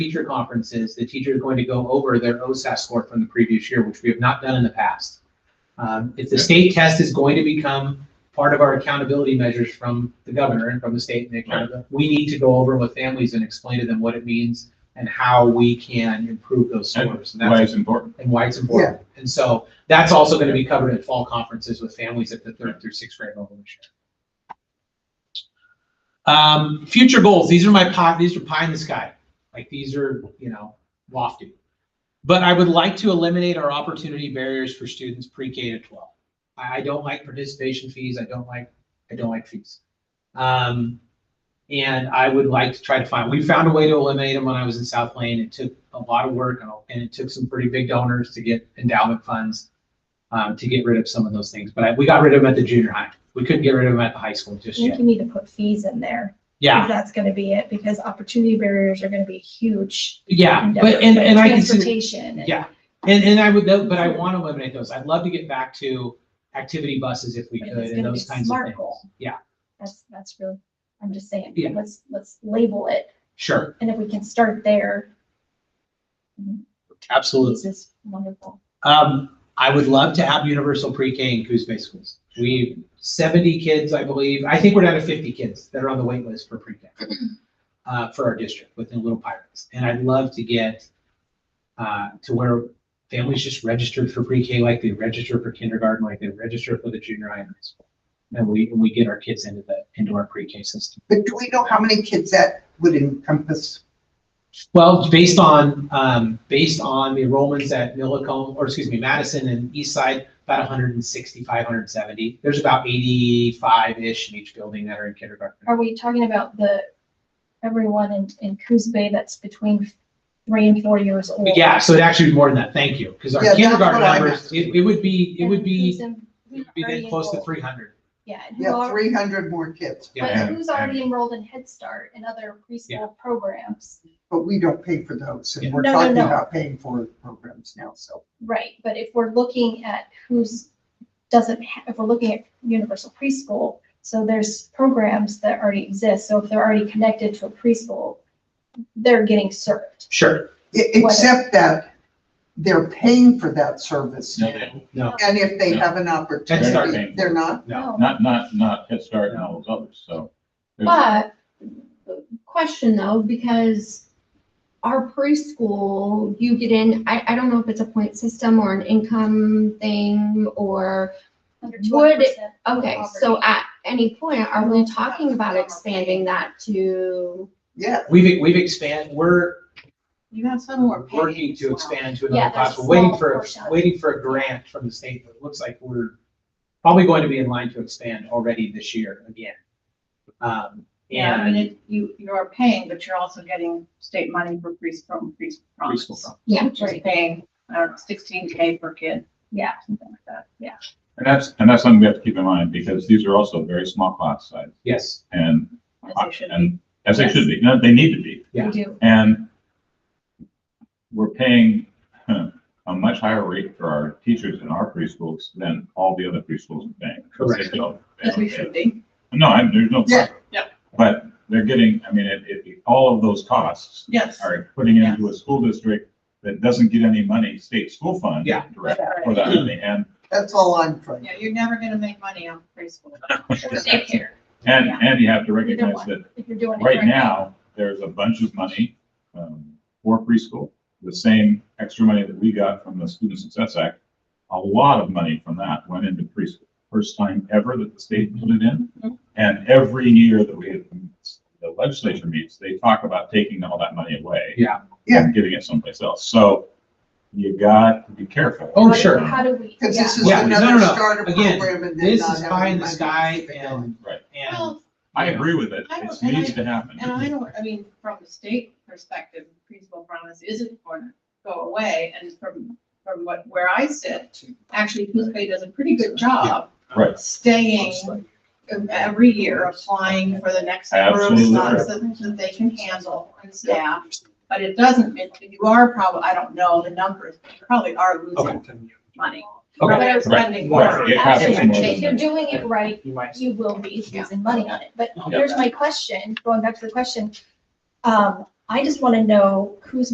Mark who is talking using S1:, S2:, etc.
S1: teacher conferences, the teacher is going to go over their OSAT score from the previous year, which we have not done in the past. Um, If the state test is going to become part of our accountability measures from the governor and from the state and the accountability, we need to go over with families and explain to them what it means and how we can improve those scores. And
S2: Why
S1: that's,
S2: it's important.
S1: and why it's important. And so that's also going to be covered at fall conferences with families at the third through sixth grade level this year. Um, future goals, these are my pie, these are pie in the sky. Like these are, you know, lofty. But I would like to eliminate our opportunity barriers for students pre-K to twelve. I, I don't like participation fees. I don't like, I don't like fees. Um, and I would like to try to find, we found a way to eliminate them when I was in South Lane. It took a lot of work and a- and it took some pretty big donors to get endowment funds um, to get rid of some of those things. But I- we got rid of them at the junior high. We couldn't get rid of them at the high school
S3: I
S1: just
S3: think
S1: yet.
S3: you need to put fees in there.
S1: Yeah,
S3: If that's gonna be it, because opportunity barriers are gonna be huge.
S1: yeah. But, and, and I can see.
S3: Transportation and.
S1: Yeah, and, and I would, tho- but I want to eliminate those. I'd love to get back to activity buses if we
S3: But
S1: could
S3: it's
S1: and
S3: gonna
S1: those
S3: be
S1: kinds of
S3: smart
S1: things.
S3: goal.
S1: Yeah,
S3: That's, that's really, I'm just saying,
S1: Yeah.
S3: let's, let's label it,
S1: sure,
S3: and if we can start there,
S1: absolutely.
S3: this is wonderful.
S1: Um, I would love to have universal pre-K in Coos Bay schools. We, seventy kids, I believe, I think we're down to fifty kids that are on the wait list for pre-K. Uh, for our district within Little Pirates. And I'd love to get, uh, to where families just registered for pre-K like they register for kindergarten, like they register for the junior high and high school. And we, and we get our kids into the, into our pre-K system.
S4: But do we know how many kids that would encompass?
S1: Well, based on, um, based on the enrollments at Millicom, or excuse me, Madison and East Side, about 165, 170. There's about 85-ish in each building that are in kindergarten.
S3: Are we talking about the, everyone in, in Coos Bay that's between three and four years old?
S1: Yeah, so it'd actually be more than that, thank you, because our
S4: Yeah, that's
S1: kindergarten
S4: what I
S1: numbers,
S4: meant.
S1: it, it would be, it would be,
S3: And who's in-
S1: it would be
S3: already
S1: then close to
S3: enrolled?
S1: 300.
S3: Yeah. and who
S4: Yeah,
S3: are-
S4: three hundred more kids,
S1: Yeah,
S3: But who's already enrolled in Head Start and other preschool programs?
S4: but we don't pay for those, and we're
S3: No, no,
S4: talking
S3: no.
S4: about paying for programs now, so.
S3: Right, but if we're looking at who's, doesn't, ha- if we're looking at universal preschool, so there's programs that already exist, so if they're already connected to a preschool, they're getting served.
S1: sure,
S4: E- Except that they're paying for that service
S2: No,
S4: now,
S2: they-
S1: no,
S4: and if they
S2: No.
S4: have an
S1: Start
S4: opportunity,
S2: paying.
S4: they're not,
S1: no,
S2: Not, not, not Head Start and all those others, so. there's-
S5: But, question though, because our preschool, you get in, I, I don't know if it's a point system or an income thing or,
S3: under
S5: Would-
S3: 20%
S5: okay, so at any point, are we talking about expanding that to?
S4: yeah.
S1: we've, we've expanded, we're
S6: You got some more.
S1: working to expand to
S3: Yeah,
S1: another
S3: there's a
S1: class, we're waiting
S3: small
S1: for,
S3: portion of it.
S1: waiting for a grant from the state, but it looks like we're probably going to be in line to expand already this year again. Um,
S6: Yeah, I mean,
S1: and
S6: it- you, you are paying, but you're also getting state money for preschool, preschool.
S1: preschool. program.
S5: Yeah.
S6: Which is paying, I don't know, sixteen K per kid.
S3: Yeah.
S6: Something like that. Yeah.
S2: And that's, and that's something we have to keep in mind, because these are also very small class size,
S1: Yes,
S2: and,
S6: As they should be.
S2: and, as they
S6: Yes.
S2: should be, no, they need to be,
S1: Yeah.
S3: We do,
S2: and we're paying huh, a much higher rate for our teachers in our preschools than all the other preschools are paying.
S1: Correct.
S2: They don't- they
S6: As
S2: don't
S6: we
S2: pay
S6: should be.
S2: No, I, there's no.
S4: Yeah,
S6: yeah.
S2: But they're getting, I mean, it, it, all of those costs
S6: Yes.
S2: are putting into a school district that doesn't get any money, state school fund.
S1: Yeah.
S2: Direct for that, and,
S4: That's all I'm trying.
S6: Yeah, you're never gonna make money on preschool.
S3: daycare.
S2: and,
S6: Yeah.
S2: and you have to
S3: Either
S2: recognize
S3: one.
S2: that
S3: if you're doing it
S2: right now, there's a bunch of money, um, for preschool. The same extra money that we got from the Student Success Act, a lot of money from that went into preschool. First time ever that the state put it in.
S6: Mhm.
S2: And every year that we, have- the legislature meets, they talk about taking all that money away.
S1: Yeah.
S4: Yeah.
S2: And giving it someplace else. So you got to be careful.
S1: Oh,
S3: How do-
S1: sure.
S3: How do we,
S4: Because
S3: yeah.
S4: this is
S1: Yeah, no,
S4: another
S1: no, no.
S4: starter
S1: Again,
S4: program and then
S1: this
S4: not
S1: is pie in
S4: having
S1: the
S4: money.
S1: sky and,
S2: Right.
S1: and,
S6: Well,
S2: I agree with it.
S6: I don't-
S2: It
S6: and I-
S2: needs to happen.
S6: and I don't, I mean, from the state perspective, preschool promise isn't gonna go away. And from, from what, where I sit, actually, Coos Bay does a pretty good job
S2: Right.
S6: staying every year applying for the next number of
S2: Absolutely.
S6: slots that, that they can handle and staff. But it doesn't, it- you are probably, I don't know the numbers, but you probably are losing money.
S1: Okay.
S6: But I'm spending
S2: Right,
S6: more.
S2: it happens
S3: Absolutely.
S2: more
S3: If you're
S2: than that.
S3: doing it right,
S1: you might,
S3: you will be
S6: Yeah.
S3: losing money on it. But
S1: Yeah.
S3: here's my question, going back to the question. Um, I just want to know who's